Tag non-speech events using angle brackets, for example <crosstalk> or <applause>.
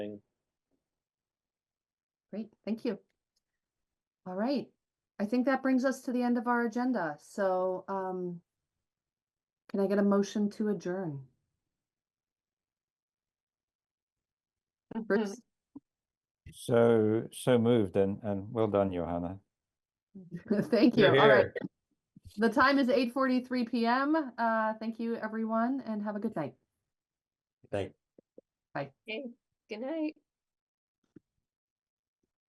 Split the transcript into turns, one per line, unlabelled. Great, thank you. All right, I think that brings us to the end of our agenda, so, um, can I get a motion to adjourn? Bruce? <laughs>
So, so moved and, and well done, Johanna.
Thank you,
You're
all right.
here.
The time is eight forty-three PM. Uh, thank you, everyone, and have a good night.
Thank
Okay, good night.